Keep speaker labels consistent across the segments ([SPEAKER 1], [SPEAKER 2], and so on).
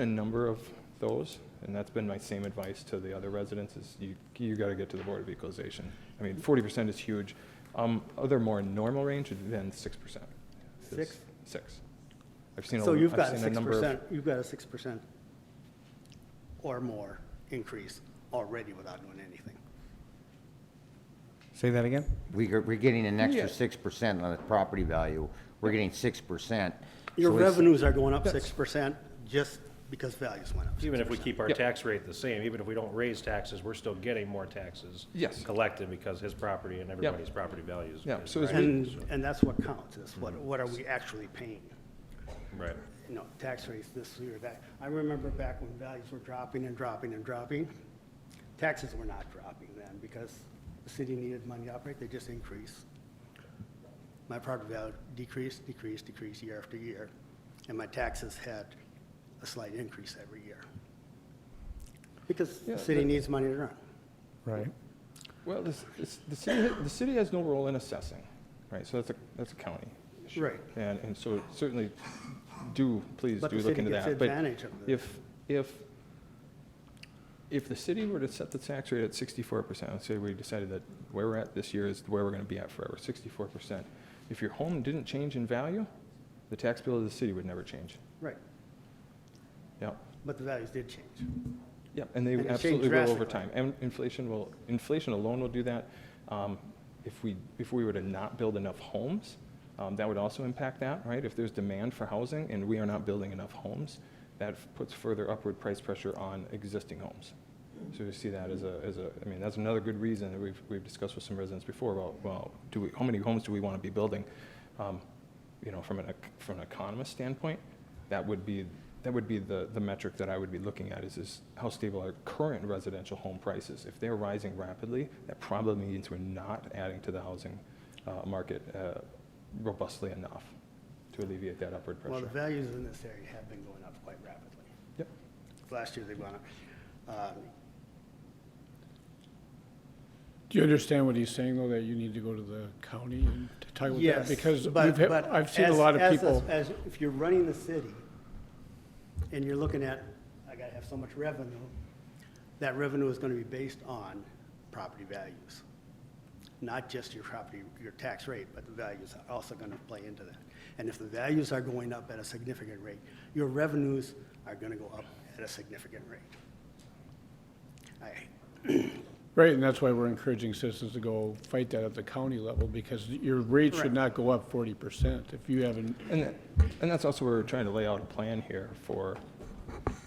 [SPEAKER 1] a number of those, and that's been my same advice to the other residents, is you, you gotta get to the Board of Equalization. I mean, forty percent is huge. Um, other more normal range would than six percent.
[SPEAKER 2] Six?
[SPEAKER 1] Six. I've seen a,
[SPEAKER 2] So you've got
[SPEAKER 1] I've seen
[SPEAKER 2] a
[SPEAKER 1] a
[SPEAKER 2] six
[SPEAKER 1] number of,
[SPEAKER 2] percent, you've got a six percent or more increase already without doing anything.
[SPEAKER 3] Say that again?
[SPEAKER 4] We, g- we're getting an
[SPEAKER 1] Yeah.
[SPEAKER 4] extra six percent on the property value. We're getting six percent.
[SPEAKER 2] Your revenues are going up
[SPEAKER 1] Yes.
[SPEAKER 2] six percent just because values went up.
[SPEAKER 5] Even if we
[SPEAKER 2] 6%.
[SPEAKER 5] keep our
[SPEAKER 1] Yep.
[SPEAKER 5] tax rate the same, even if we don't raise taxes, we're still getting more taxes.
[SPEAKER 1] Yes.
[SPEAKER 5] Collected because his property and everybody's property values.
[SPEAKER 1] Yeah, so as
[SPEAKER 5] Right,
[SPEAKER 2] And, and that's what counts, is what,
[SPEAKER 1] Mm-hmm.
[SPEAKER 2] what are we actually paying?
[SPEAKER 5] Right.
[SPEAKER 2] You know, tax rates this year, that, I remember back when values were dropping and dropping and dropping, taxes were not dropping then, because the city needed money to operate, they just increased. My property value decreased, decreased, decreased year after year, and my taxes had a slight increase every year. Because
[SPEAKER 1] Yeah,
[SPEAKER 2] the city
[SPEAKER 1] that-
[SPEAKER 2] needs money to run.
[SPEAKER 3] Right.
[SPEAKER 1] well, this, this, the city, the city has no role in assessing, right? So that's a, that's a county. issue.
[SPEAKER 2] Right.
[SPEAKER 1] And, and so certainly do, please
[SPEAKER 2] But
[SPEAKER 1] do
[SPEAKER 2] the
[SPEAKER 1] look
[SPEAKER 2] city
[SPEAKER 1] into
[SPEAKER 2] gets
[SPEAKER 1] that. But
[SPEAKER 2] advantage of the-
[SPEAKER 1] If, if, if the city were to set the tax rate at sixty-four percent, let's say we decided that where we're at this year is where we're gonna be at forever, sixty-four percent. If your home didn't change in value, the tax bill of the city would never change.
[SPEAKER 2] Right,
[SPEAKER 1] Yeah,
[SPEAKER 2] but the values did change.
[SPEAKER 1] yeah, and they
[SPEAKER 2] And it changed
[SPEAKER 1] absolutely will over
[SPEAKER 2] drastically.
[SPEAKER 1] time. And inflation will, inflation alone will do that. Um, If we, if we were to not build enough homes, um, that would also impact that, right? If there's demand for housing and we are not building enough homes, that f- puts further upward price pressure on existing homes. So we see that as a, as a, I mean, that's another good reason that we've, we've discussed with some residents before about, well, do we, how many homes do we want to be building? Um, You know, from an, ec- from an economist standpoint, that would be, that would be the, the metric that I would be looking at is, is how stable are current residential home prices? If they're rising rapidly, that probably means we're not adding to the housing uh, market uh, robustly enough to alleviate that upward
[SPEAKER 2] Well, the
[SPEAKER 1] pressure.
[SPEAKER 2] values in this area have been going up quite rapidly.
[SPEAKER 1] Yep,
[SPEAKER 2] Last year they went up. um,
[SPEAKER 6] Do you understand what he's saying, though, that you need to go to the county and to talk with
[SPEAKER 2] Yes.
[SPEAKER 6] that? Because
[SPEAKER 2] but-
[SPEAKER 6] we've had-
[SPEAKER 2] but
[SPEAKER 6] I've seen a
[SPEAKER 2] as-
[SPEAKER 6] lot of
[SPEAKER 2] as-
[SPEAKER 6] people,
[SPEAKER 2] As, if you're running the city and you're looking at, I gotta have so much revenue, that revenue is gonna be based on property values. Not just your property, your tax rate, but the values are also gonna play into that. And if the values are going up at a significant rate, your revenues are gonna go up at a significant rate. I,
[SPEAKER 6] right, and that's why we're encouraging citizens to go fight that at the county level, because your rate
[SPEAKER 2] Correct.
[SPEAKER 6] should not go up forty percent if you haven't,
[SPEAKER 1] and, that- and that's also where we're trying to lay out a plan here for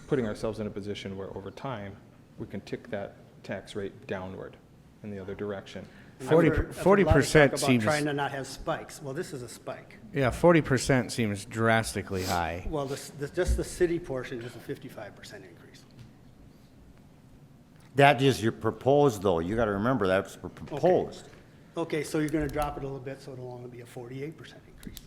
[SPEAKER 1] putting ourselves in a position where over time, we can tick that tax rate downward in the other direction.
[SPEAKER 2] I've
[SPEAKER 3] Forty-
[SPEAKER 2] heard- I've heard a lot of
[SPEAKER 3] 40%
[SPEAKER 2] talk about
[SPEAKER 3] seems-
[SPEAKER 2] Trying to not have spikes. Well, this is a spike.
[SPEAKER 3] Yeah, forty percent seems drastically high.
[SPEAKER 2] Well, this, this, just the city portion is a fifty-five percent increase.
[SPEAKER 4] That is your proposed, though. You gotta remember, that's pr- proposed.
[SPEAKER 2] Okay, so you're gonna drop it a little bit, so it'll only be a forty-eight percent increase.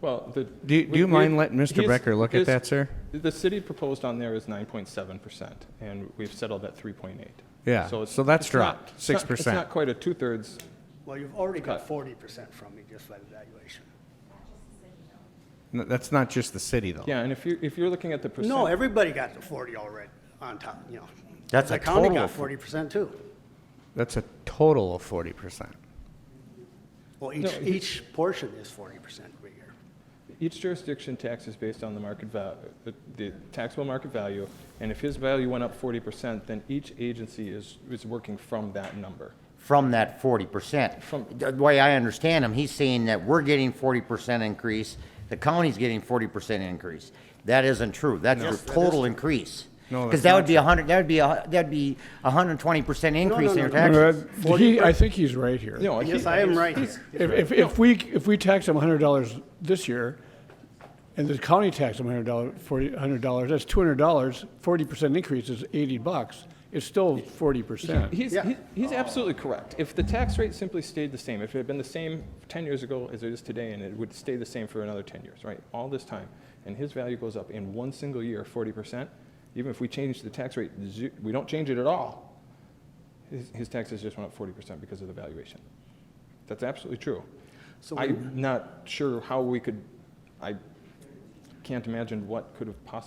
[SPEAKER 1] Well, the.
[SPEAKER 3] Do you- do
[SPEAKER 1] we-
[SPEAKER 3] you
[SPEAKER 1] we-
[SPEAKER 3] mind letting Mr.
[SPEAKER 1] he's-
[SPEAKER 3] Becker look at
[SPEAKER 1] his-
[SPEAKER 3] that, sir?
[SPEAKER 1] The city proposed on there is nine point seven percent, and we've settled at three point eight.
[SPEAKER 3] Yeah, so that's dropped, 6%.
[SPEAKER 1] It's not quite a two-thirds,
[SPEAKER 2] Well, you've already got
[SPEAKER 1] Cut.
[SPEAKER 2] forty percent from me just by the valuation.
[SPEAKER 3] N- That's not just the city, though.
[SPEAKER 1] yeah, and if you, if you're looking at the percent.
[SPEAKER 2] No, everybody got the forty already on top, you know.
[SPEAKER 4] That's a
[SPEAKER 2] The county
[SPEAKER 4] total
[SPEAKER 2] got
[SPEAKER 4] of-
[SPEAKER 2] forty percent too.
[SPEAKER 3] That's a total of forty percent.
[SPEAKER 2] Well,
[SPEAKER 1] No,
[SPEAKER 2] each,
[SPEAKER 1] he-
[SPEAKER 2] each portion is forty percent per year.
[SPEAKER 1] Each jurisdiction tax is based on the market val, the- the taxable market value, and if his value went up forty percent, then each agency is, is working from that number.
[SPEAKER 4] from that forty percent.
[SPEAKER 1] From-
[SPEAKER 4] The way I understand him, he's saying that we're getting forty percent increase, the county's getting forty percent increase. That isn't true. That's your
[SPEAKER 2] Yes, that is
[SPEAKER 4] total increase.
[SPEAKER 3] No, that's
[SPEAKER 4] Because that would
[SPEAKER 3] not
[SPEAKER 4] be a hundred, that would be, a that'd be a hundred and twenty percent increase in
[SPEAKER 2] no,
[SPEAKER 4] your
[SPEAKER 2] no,
[SPEAKER 6] No,
[SPEAKER 4] taxes.
[SPEAKER 6] that- he, I think he's right here.
[SPEAKER 1] No, he-
[SPEAKER 2] Yes, I am right here.
[SPEAKER 6] If, if, if we, if we tax them hundred dollars this year, and the county tax them hundred dollars, forty, hundred dollars, that's two hundred dollars, forty percent increase is eighty bucks. It's still forty percent.
[SPEAKER 1] He's,
[SPEAKER 2] Yeah.
[SPEAKER 1] he- he's absolutely correct. If the tax rate simply stayed the same, if it had been the same 10 years ago as it is today, and it would stay the same for another 10 years, right, all this time, and his value goes up in one single year 40%, even if we change the tax rate, zu- we don't change it at all, his, his taxes just went up 40% because of the valuation. That's absolutely true.
[SPEAKER 2] So
[SPEAKER 1] I'm not sure how we could, I can't imagine what could have possibly